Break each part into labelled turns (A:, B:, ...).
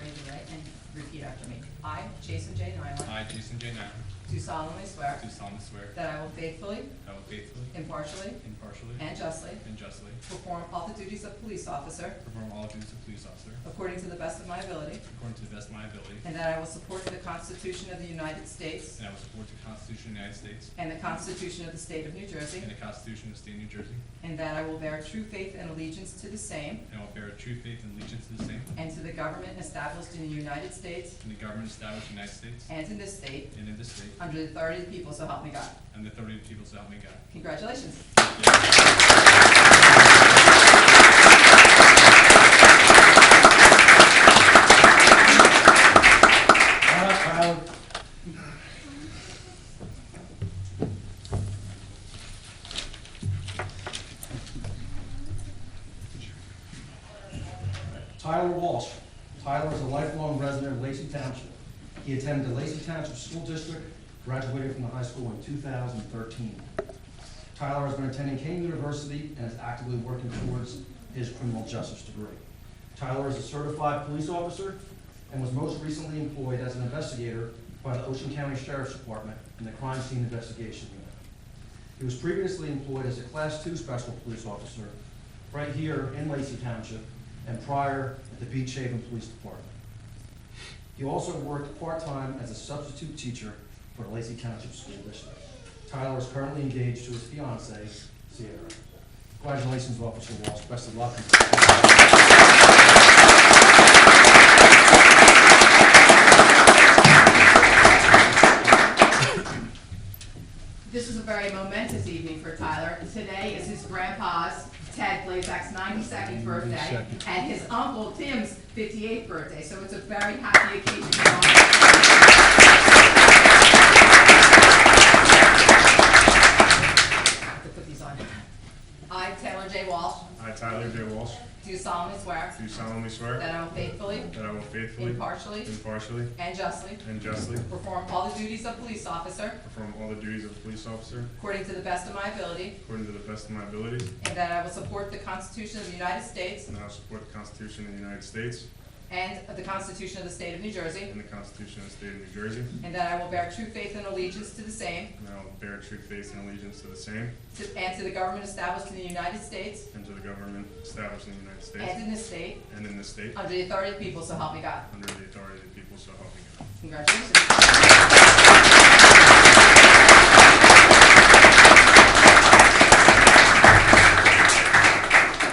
A: raise your right hand, repeat after me. I, Jason J. Nyland.
B: I, Jason J. Nyland,
A: Do solemnly swear
B: do solemnly swear that
A: that I will faithfully,
B: I will faithfully,
A: impartially,
B: impartially,
A: and justly
B: and justly
A: perform all the duties of police officer
B: perform all duties of police officer
A: according to the best of my ability,
B: according to the best of my ability,
A: and that I will support the Constitution of the United States
B: and I will support the Constitution of the United States
A: and the Constitution of the State of New Jersey,
B: and the Constitution of the State of New Jersey,
A: and that I will bear true faith and allegiance to the same
B: and I will bear true faith and allegiance to the same
A: and to the government established in the United States
B: and the government established in the United States
A: and in this state
B: and in this state,
A: under the authority of the people, so help me God.
B: and the authority of the people, so help me God.
A: Congratulations.
C: Tyler Walsh. Tyler is a lifelong resident of Lacey Township. He attended the Lacey Township School District, graduated from the high school in 2013. Tyler has been attending Kane University and is actively working towards his criminal justice degree. Tyler is a certified police officer and was most recently employed as an investigator by the Ocean County Sheriff's Department in the Crime Scene Investigation Unit. He was previously employed as a Class Two Special Police Officer right here in Lacey Township and prior at the Beach Haven Police Department. He also worked part-time as a substitute teacher for the Lacey Township School District. Tyler is currently engaged to his fiancee, Sierra. Congratulations, Officer Walsh. Best of luck.
A: This is a very momentous evening for Tyler. Today is his grandpa's, Ted Blazak's, 92nd birthday, and his uncle Tim's 58th birthday, so it's a very happy occasion for all. I have to put these on. I, Taylor J. Walsh,
D: I, Tyler J. Walsh,
A: do solemnly swear
D: do solemnly swear
A: that I will faithfully,
D: that I will faithfully,
A: impartially,
D: impartially,
A: and justly
D: and justly
A: perform all the duties of police officer
D: perform all the duties of police officer
A: according to the best of my ability,
D: according to the best of my abilities,
A: And that I will support the Constitution of the United States
D: and I will support the Constitution of the United States
A: and the Constitution of the State of New Jersey.
D: and the Constitution of the State of New Jersey,
A: And that I will bear true faith and allegiance to the same
D: and I will bear true faith and allegiance to the same
A: to- and to the government established in the United States
D: and to the government established in the United
A: and
D: States
A: in this state
D: and in this state,
A: under the authority of the people, so help me God.
D: under the authority of the people, so help me God.
A: Congratulations.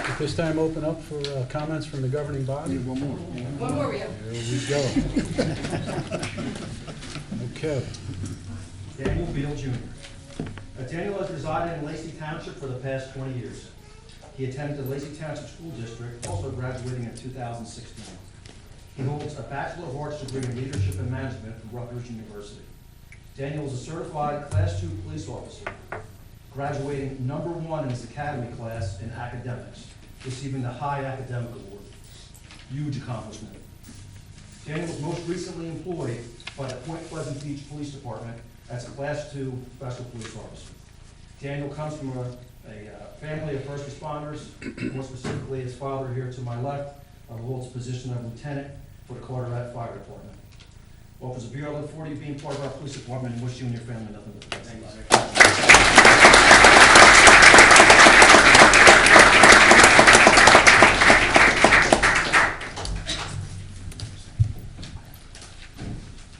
E: At this time, open up for uh, comments from the governing body. Here
A: One more we have.
E: we go. Okay.
C: Daniel Beal Jr. Uh, Daniel has resided in Lacey Township for the past 20 years. He attended the Lacey Township School District, also graduating in 2016. He holds a Bachelor of Arts degree in Leadership and Management from Rutgers University. Daniel is a certified Class II police officer, graduating number one in his academy class in academics, receiving the High Academic Award. Huge accomplishment. Daniel was most recently employed by the Point Pleasant Beach Police Department as a Class II Special Police Officer. Daniel comes from a, a uh, family of first responders, more specifically his father here to my left, uh, holds a position of lieutenant for the Carteret Fire Department. Officer Bureau, I look forward to you being part of our police department and wish you and your family nothing but the best.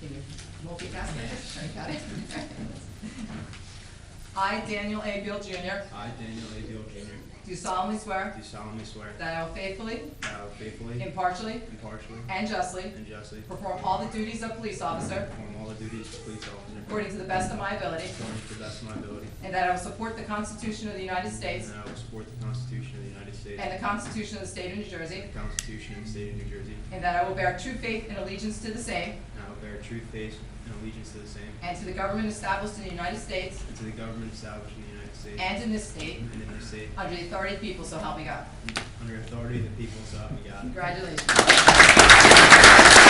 A: Can you multitask there? Sorry, got it. I, Daniel A. Beal Jr.,
F: I, Daniel A. Deal Jr.,
A: do solemnly swear
F: do solemnly swear
A: that I will faithfully,
F: that I will faithfully,
A: impartially,
F: impartially,
A: and justly
F: and justly
A: perform all the duties of police officer
F: perform all the duties of police officer
A: according to the best of my ability.
F: according to the best of my ability,
A: And that I will support the Constitution of the United
F: and
A: States
F: that I will support the Constitution of the United States
A: and the Constitution of the State of New Jersey.
F: and the Constitution of the State of New Jersey,
A: And that I will bear true faith and allegiance to the same
F: and I will bear true faith and allegiance to the same
A: and to the government established in the United States
F: and to the government established in the United States
A: and in this state
F: and in this state,
A: under the authority of the people, so help me God.
F: under authority of the people, so help me God.
A: Congratulations.